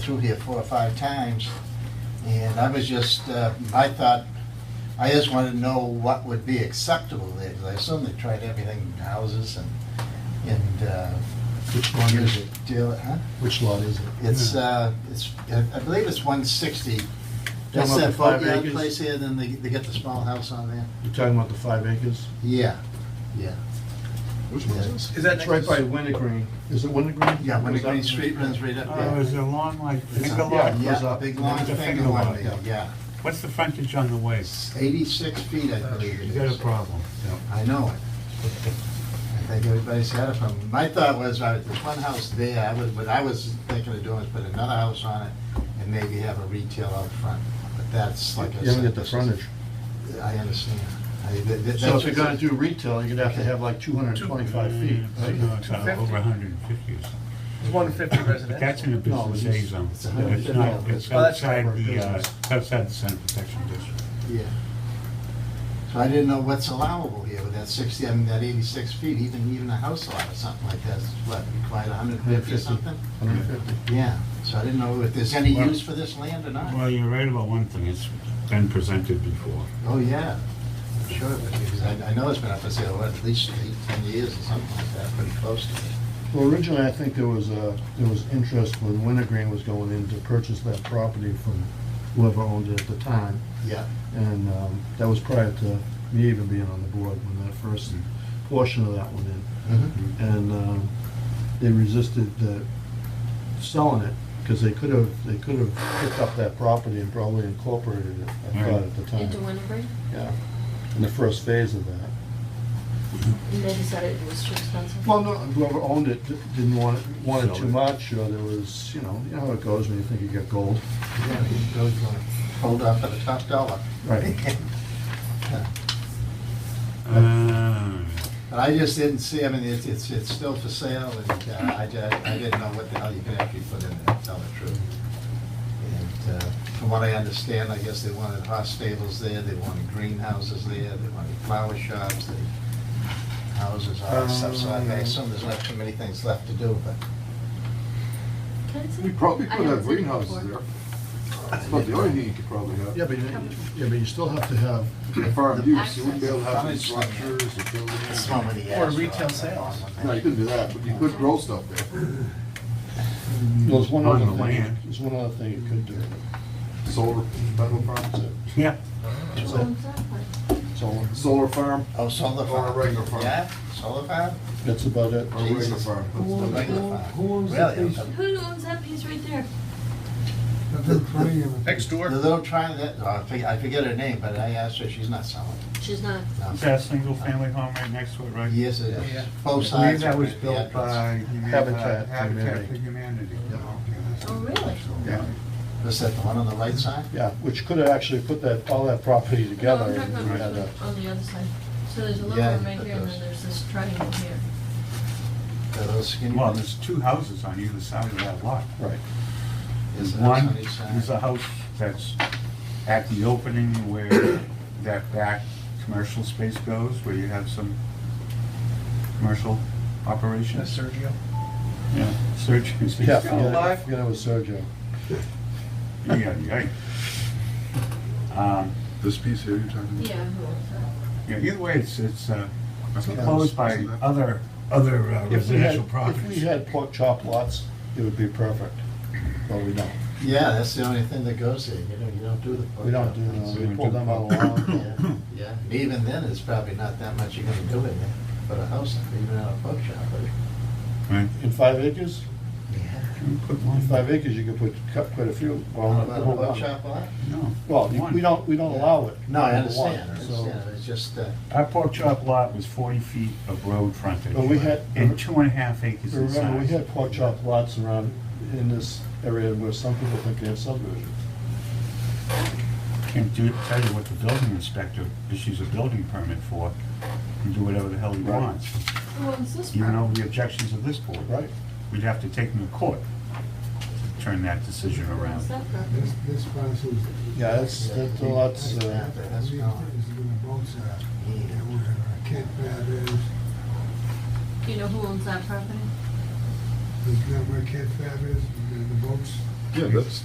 through here four or five times, and I was just, uh, I thought, I just wanted to know what would be acceptable there, 'cause I assume they tried everything, houses and, and, uh, Which lot is it? deal, huh? Which lot is it? It's, uh, it's, I I believe it's one sixty. That's about that the five boatyard acres? place here, then they, they get the small house on there? You're talking about the five acres? Yeah, yeah. Which one is this? Is that It's right by Wintergreen. Is it Wintergreen? Yeah, when the Goes up- Green Street runs right up Oh, there. is it a long, like, It's finger a- yeah. lot? it goes Yeah, up. big long It's a thing finger along lot, there, yeah. What's the frontage on the way? Eighty-six feet, I believe it You is. got a problem. I know it. I think everybody's had it from, my thought was, all right, there's one house there, I was, what I was thinking of doing is put another house on it and maybe have a retail out front, but that's like I said. You haven't got the this is- frontage. I understand. I- th- th- So if that's- you're gonna do retail, you're gonna have to have like two hundred and twenty-five feet, Uh, right? No, it's uh, 250. over hundred and fifty or something. It's one fifty But residential. that's in a No, business it's- A zone. it's a hundred It's and not, fifty. it's Oh, that's outside not for the, uh, business. outside the center protection district. Yeah. So I didn't know what's allowable here with that sixty, I mean, that eighty-six feet, even, even a house lot or something like that, is what, required hundred and fifty or 150. something? Hundred and fifty. Yeah, so I didn't know if there's any Well- use for this land or not. Well, you're right about one thing, it's been presented before. Oh, yeah, I'm sure it would, be, because I, I know it's been up for sale, what, at least eight, ten years or something like that, pretty close to it. Well, originally, I think there was, uh, there was interest when Wintergreen was going in to purchase that property from whoever owned it at the time. Yeah, And, um, that was prior to me even being on the board when that first portion of that went Mhm. in. And, um, they resisted uh, selling it, because they could have, they could have picked up that property and probably incorporated it, I thought at the time. Into Winterbury, Yeah, in the first phase of that. and they decided it was too expensive. Well, no, whoever owned it di- didn't want, it- wanted Sell too it. much, or there was, you know, you know how it goes when you think you get gold. yeah, you go, you wanna hold up for the top dollar. Right. Yeah. Uh, But I just didn't see, I mean, it's, it's, it's still for sale, and uh, I, ju- I didn't know what the hell you could actually put in there, to tell the truth. And uh, from what I understand, I guess they wanted horse stables there, they wanted greenhouses there, they wanted flower shops, they, houses, all that stuff, so I I assume there's not too many things left to do, but. Can I see? We probably I could haven't have seen it greenhouses before. there. That's about the only thing you could probably have. Yeah, but you, yeah, but you still have to have, Farm use, you wouldn't be able to have any Access. structures or That's buildings. one with the Or asphalt, retail that's sales. one with No, you that. couldn't do that, but you could grow stuff there. well, there's one On other the thing, land. there's one other thing you could do. Solar, metal farm, Yeah, That's Oh, it, exactly. solar, solar farm Oh, solar farm. Or a regular farm. Yeah, solar farm? that's about it. or a regular Jesus. farm. It's the regular farm. Really? I'm- Who owns that piece right there? Next The door. little triangle, that, oh, I forget, I forget her name, but I asked her, she's not selling. She's not, No. is that a single-family home right next to it, right? Yes, it is. Yeah. Both I believe sides. that are was the built address. by Humani- Habitat uh, Habitat for Humanity. Humanity. Oh, really? Yeah. Was that the one on the right side? Yeah, which could have actually put that, all that property no, together. Oh, I'm and talking we had a- about this one on the other side. So there's a little Yeah, room right but here, and those- then there's this triangle here. The little skinny Well, one? there's two houses on either side of that lot. Right, There's a house One on each side. is a house that's at the opening where that back commercial space goes, where you have some commercial operations. Sergio. Yeah, surgeons. yeah, still yeah, alive? yeah, it was Sergio. Yeah, yeah. Um, This piece here you're talking Yeah, who owns that? yeah, Either way, it's, it's uh, That's a house, proposed by isn't it? other, other uh, If we had, residential if we properties. had pork chop lots, it would be perfect, but we don't. Yeah, that's the only thing that goes there. You don't, you don't do the. pork We don't chop do, no, things. we pull them out of the lawn. Yeah, Yeah, And even then, it's probably not that much you're gonna do in there, but a house, even out a pork shop, but. Right. In five acres? Yeah. Can we put In one? five acres, you could put, cut quite a few. Well, How about a well, pork chop lot? No. Well, you- One. we don't, we don't allow it. No, I number one, understand, I understand. so- It's just, uh, Our pork chop lot was forty feet of road frontage. But we had- And two and a half acres in Remember, we size. had pork chop lots around in this area where some people think they have subdivisions. Can do, tell you what the building inspector issues a building permit for, and do whatever the hell he Right. wants. Who owns this Even property? over the objections of this board. Right. We'd have to take him to court, to turn that decision Who owns around. that property? This parcel is. Yeah, that's, that the lots, uh, that's gone. Is doing both sides. Yeah, where Kent Fab is, Do you know who owns that property? is that where Kent Fab is, the the boats, Yeah, that's,